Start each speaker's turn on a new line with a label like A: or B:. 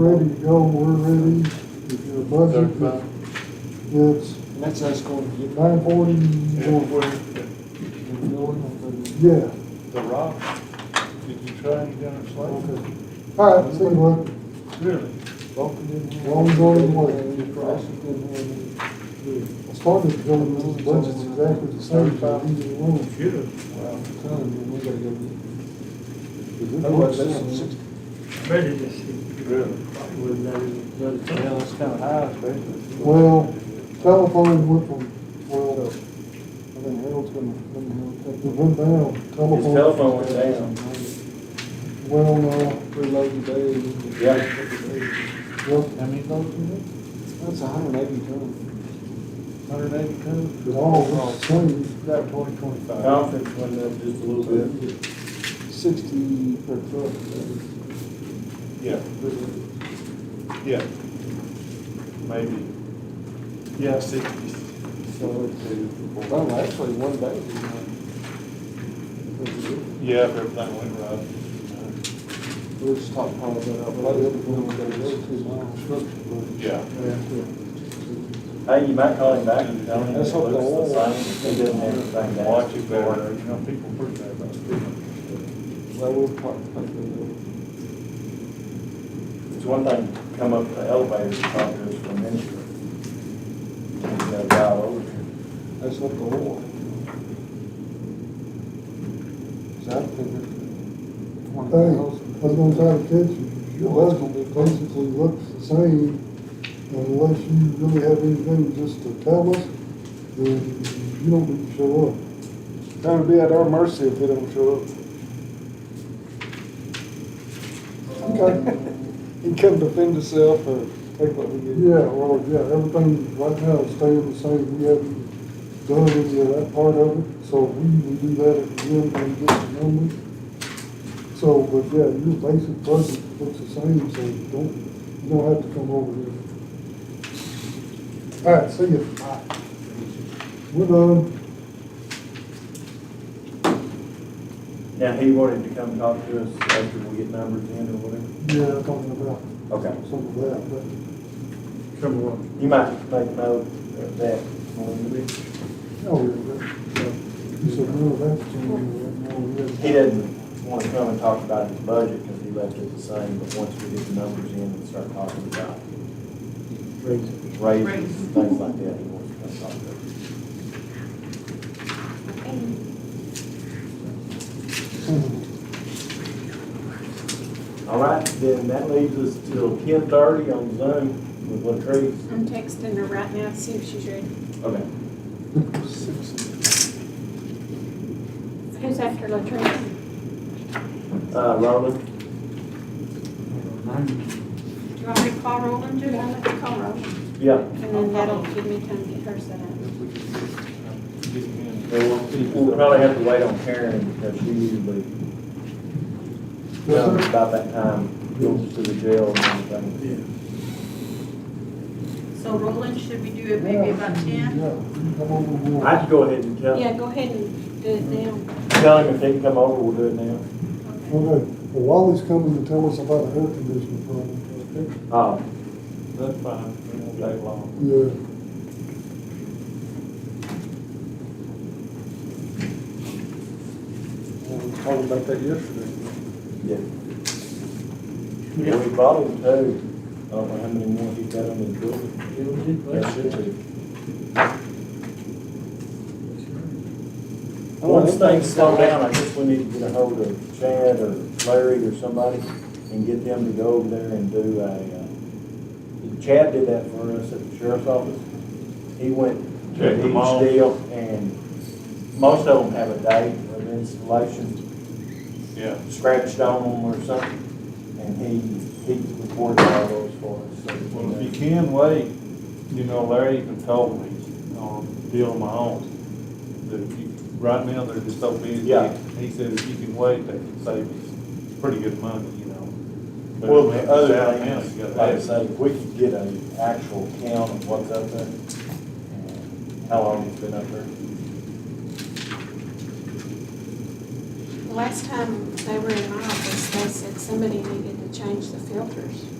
A: ready to go, we're ready, if your budget,
B: Thirty-five.
A: it's
C: And that's us going to get back.
A: nine forty,
B: And where,
A: yeah,
B: the rock, did you try any down at Slate?
A: okay. All right, see you later.
B: Really?
A: Long going
C: Wow,
A: away. I started to go with the budget's exactly the same time we did one.
B: Should have.
C: son, we gotta go
A: Is
C: get.
A: it
C: Otherwise,
A: worth
C: that's
A: it?
C: sixty.
D: prejudice. it
B: Really?
D: was that is- that is-
B: Yeah, that's kind of high, especially.
A: Well, telephone went from, well,
C: I think Harold's gonna, then
A: it
C: Harold
A: went down, telephone.
E: His telephone went
C: take
E: down.
C: the.
A: Well, no,
C: Preload the day. and-
E: Yeah.
A: yep. How many votes
C: That's a hundred and eighty ton.
B: Hundred eighty tons? Oh,
A: It all was the same,
B: About twenty, twenty-five.
E: Conference went up just a little bit.
C: Sixty per truck.
B: Yeah, yeah. Maybe. Yeah, sixty.
C: So it's, well, actually, one day. you know.
B: Yeah, if everything went right.
C: We'll just talk part of that out, but I didn't know what that was, too long.
B: Yeah.
E: Hey, you might call him back and tell him that
C: That's
E: Luke's
C: what the oil-
E: the same, he doesn't have anything to
B: Watch
E: ask
B: it
E: for.
B: better, you know, people pretty bad about speaking.
C: Well, we'll talk, talk to
E: It's one thing to come up the elevator and talk to us for a minute. You gotta dial over here.
C: them. That's what the oil. Cause I figured twenty
A: hey, I was gonna
C: thousand.
A: try to catch you, your budget basically looks the same, unless you really have anything just to tell us, then you don't need to show up.
C: Gonna be at our mercy if they don't show up.
A: Okay.
C: He can defend himself or take what we give. him.
A: Yeah, well, yeah, everything right now is staying the same, we haven't done any of that part of it, so we will do that at the end when we get the numbers. So, but yeah, your basic budget looks the same, so you don't, you don't have to come over here. All right, see um, ya. We're done.
E: Now, he wanted to come talk to us after we get numbers in or whatever.
A: Yeah, talking about
E: Okay.
A: some of that, but.
D: Come on.
E: You might make note of that when we-
A: No, you said, no, that's, no, that's.
E: He doesn't want to come and talk about his budget because he left it the same, but once we get the numbers in and start talking about raises, and things like that, he wants to come talk to us. All right, then that leaves us till ten thirty on Zoom with Latrice.
F: I'm texting her right now, to see if she's ready.
E: Okay.
F: Who's after Latrina?
E: Uh, Roland,
F: Do you want me to call Roland, Judy? I'm gonna call Roland,
E: yeah,
F: and then that'll give me time to get her set up.
E: we'll, we'll probably have to wait on Karen because she usually comes about that time, goes to the jail and everything.
G: So Roland, should we do it maybe about ten?
E: I could go ahead and tell,
F: Yeah, go ahead and do it now.
E: tell him if they can come over, we'll do it now.
G: Okay.
A: Okay, well, Wally's coming to tell us about the air conditioning problem.
E: Uh,
B: That's fine, it won't take long.
A: Yeah.
C: Yeah, We was talking about that yesterday.
E: yeah. We bought him two, I don't know how many more he's got on his building. That should be. Once things slow down, I guess we need to get a hold of Chad or Larry or somebody and get them to go over there and do a, uh, Chad did that for us at the sheriff's office. He went
B: Check
E: to
B: them all.
E: each deal and most of them have a date of installation,
B: Yeah.
E: scratched on them or something. And he, he recorded all those for us. so we
B: Well, if you
E: know.
B: can wait, you know, Larry even told me on a deal of my own, that if you, right now, they're just so busy.
E: Yeah.
B: He said if you can wait, they can save you pretty good money, you know. But
E: Well,
B: if
E: the
B: it's out
E: other
B: of
E: thing
B: town, you
E: is,
B: gotta
E: like I
B: have it.
E: say, if we could get an actual count of what's up there, and how long it's been up there.
F: Last time they were in my office, they said somebody needed to change the filters.